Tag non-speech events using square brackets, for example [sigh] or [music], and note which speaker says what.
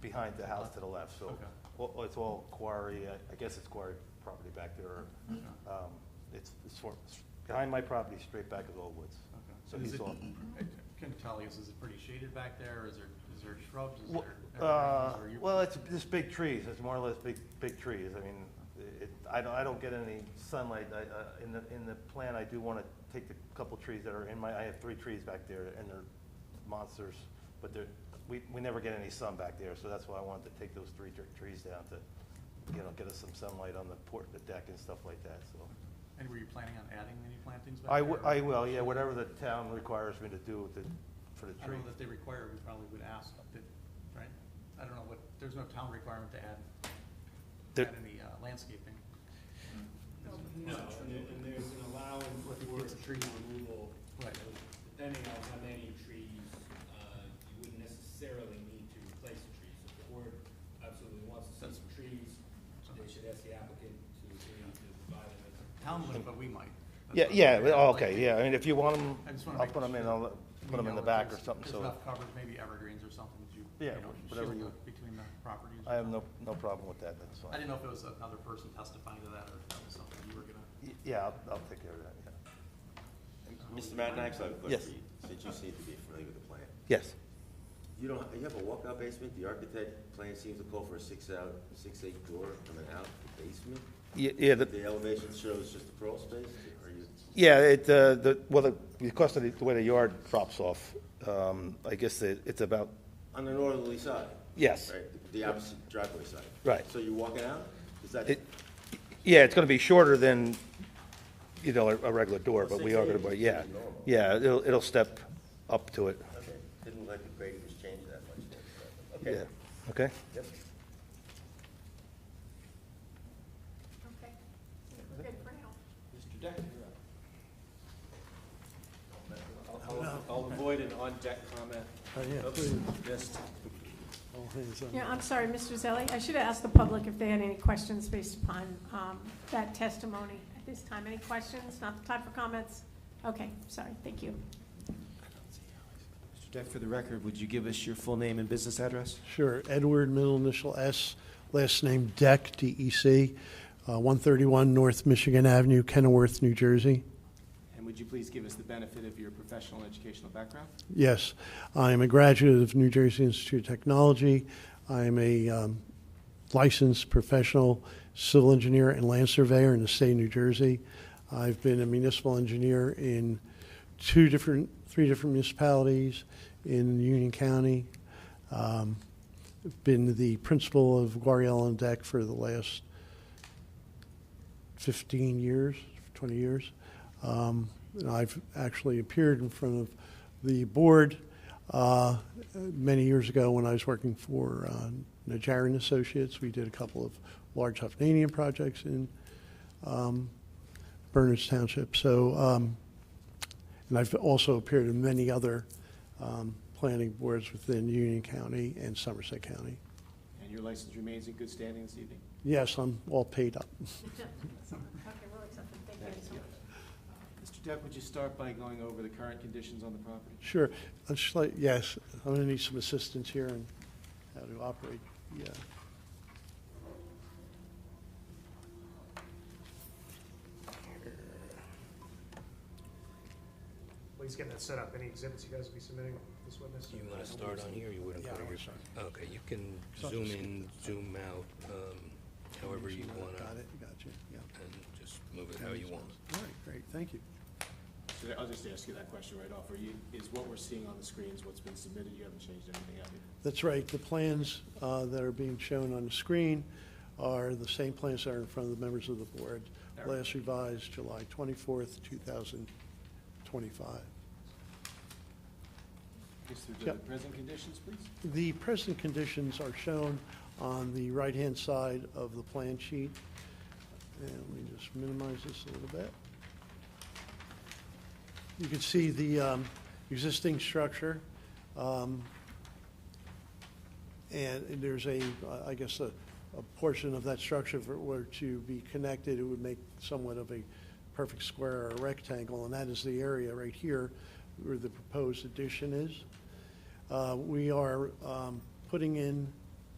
Speaker 1: behind the house to the left, so
Speaker 2: Okay.
Speaker 1: well, it's all quarry, I I guess it's quarry property back there. or, um, It's it's sort, behind my property, straight back is all woods.
Speaker 2: Okay.
Speaker 1: So
Speaker 2: And is
Speaker 1: he's
Speaker 2: it-
Speaker 1: off.
Speaker 2: I Couldn't tell you, is it pretty shaded back there, is there, is there shrubs, is there?
Speaker 1: Well, uh,
Speaker 2: evergreens, or you-
Speaker 1: Well, it's just big trees, it's more or less big, big trees, I mean, it, I don't, I don't get any sunlight, I, uh, in the, in the plan, I do wanna take the couple trees that are in my, I have three trees back there, and they're monsters, but they're, we, we never get any sun back there, so that's why I wanted to take those three tre- trees down to, you know, get us some sunlight on the port, the deck and stuff like that, so.
Speaker 2: And were you planning on adding any plantings back there?
Speaker 1: I, w-
Speaker 2: or-
Speaker 1: I will, yeah, whatever the town requires me to do with the, for the
Speaker 2: I don't
Speaker 1: trees.
Speaker 2: know that they require, we probably would ask, that, right? I don't know what, there's no town requirement to add,
Speaker 1: There-
Speaker 2: add any uh, landscaping.
Speaker 3: No, and there- and there's an allowance
Speaker 2: What if it
Speaker 3: for
Speaker 2: gets a tree?
Speaker 3: tree removal.
Speaker 2: Right.
Speaker 3: So Depending on how many trees, uh, you wouldn't necessarily need to replace the trees. If the board absolutely wants to see
Speaker 2: That's-
Speaker 3: some trees, they should ask the applicant to, agree to provide them. with some-
Speaker 2: Town would, but we might. That's
Speaker 1: Yeah,
Speaker 2: what I'm
Speaker 1: yeah,
Speaker 2: saying.
Speaker 1: well, okay, yeah, I mean, if you want them,
Speaker 2: I just wanna
Speaker 1: I'll
Speaker 2: make
Speaker 1: put them in,
Speaker 2: sure
Speaker 1: I'll
Speaker 2: We
Speaker 1: put them in
Speaker 2: know
Speaker 1: the
Speaker 2: that
Speaker 1: back or
Speaker 2: there's-
Speaker 1: something,
Speaker 2: There's
Speaker 1: so
Speaker 2: enough coverage, maybe evergreens or something, that you,
Speaker 1: Yeah,
Speaker 2: you know,
Speaker 1: whatever
Speaker 2: shield
Speaker 1: you-
Speaker 2: it between the properties. or
Speaker 1: I have no,
Speaker 2: something.
Speaker 1: no problem with that, that's
Speaker 2: I
Speaker 1: fine.
Speaker 2: didn't know if it was another person testifying to that, or if that was something you were gonna.
Speaker 1: Y- Yeah, I'll, I'll take care of that, yeah.
Speaker 4: Mr. Madnax, I have a question
Speaker 1: Yes.
Speaker 4: for you, since you seem to be familiar with the plan.
Speaker 1: Yes.
Speaker 4: You don't, you have a walkout basement, the architect plan seems to call for a six out, six eight door coming out the basement?
Speaker 1: Yeah, the-
Speaker 4: The elevation shows just the crawl space, or you,
Speaker 1: yeah, it, uh, the, well, the- because of the- the way the yard drops off, um, I guess it- it's about,
Speaker 4: on the northerly side?
Speaker 1: Yes.
Speaker 4: Right, the opposite driveway side?
Speaker 1: Right.
Speaker 4: So you're walking out, is that?
Speaker 1: it, yeah, it's gonna be shorter than, you know, a a regular door, but we are gonna, but yeah. Yeah, it'll, it'll step up to it,
Speaker 4: Okay, didn't look like the grading was changed that [laughs] much then, but, okay.
Speaker 1: yeah, okay?
Speaker 4: Yep.
Speaker 5: Okay, we're good for now.
Speaker 6: Mr. Deck, you're up. I'll- I'll- I'll avoid an on-deck comment. Oops, missed.
Speaker 5: Yeah, I'm sorry, Mr. Zelli, I should have asked the public if they had any questions based upon um, that testimony at this time. Any questions? Not the time for comments? Okay, sorry, thank you.
Speaker 6: Mr. Deck, for the record, would you give us your full name and business address?
Speaker 7: Sure. Edward, middle initial S, last name Deck, D-E-C, uh, 131 North Michigan Avenue, Kenilworth, New Jersey.
Speaker 6: And would you please give us the benefit of your professional and educational background?
Speaker 7: Yes, I am a graduate of New Jersey Institute of Technology. I am a um, licensed professional civil engineer and land surveyor in the state of New Jersey. I've been a municipal engineer in two different, three different municipalities in Union County. Um, I've Been the principal of Guari Island Deck for the last 15 years, 20 years. Um, and I've actually appeared in front of the board uh, many years ago when I was working for uh, Najarian Associates. We did a couple of large Hovnanian projects in um, Berners Township. So, um, and I've also appeared in many other um, planning boards within Union County and Somerset County.
Speaker 6: And your license remains in good standing this evening?
Speaker 7: Yes, I'm all paid up. [laughs]
Speaker 5: Okay, we'll accept them. Thank you so much.
Speaker 6: Mr. Deck, would you start by going over the current conditions on the property?
Speaker 7: Sure. I'd just like, yes, I'm going to need some assistance here on how to operate. Yeah.
Speaker 8: Well, he's getting that set up. Any exhibits you guys will be submitting this witness?
Speaker 9: You want to start on here, or you wouldn't
Speaker 7: Yeah,
Speaker 9: put
Speaker 7: I
Speaker 9: on
Speaker 7: wanna
Speaker 9: your... Okay, you can zoom in, zoom out, um, however you want to,
Speaker 7: Got it, got you, yeah.
Speaker 9: and just move it how you want.
Speaker 7: All right, great, thank you.
Speaker 6: So I'll just ask you that question right off. Are you, is what we're seeing on the screens what's been submitted? You haven't changed anything, have you?
Speaker 7: That's right, the plans uh, that are being shown on the screen are the same plans that are in front of the members of the board,
Speaker 6: All right.
Speaker 7: last revised July 24th, 2025.
Speaker 6: Just through the
Speaker 7: Yep.
Speaker 6: present conditions, please?
Speaker 7: The present conditions are shown on the right-hand side of the plan sheet. And let me just minimize this a little bit. You can see the um, existing structure. um, And there's a, I guess, a, a portion of that structure, if it were to be connected, it would make somewhat of a perfect square or rectangle, and that is the area right here where the proposed addition is. Uh, We are um, putting in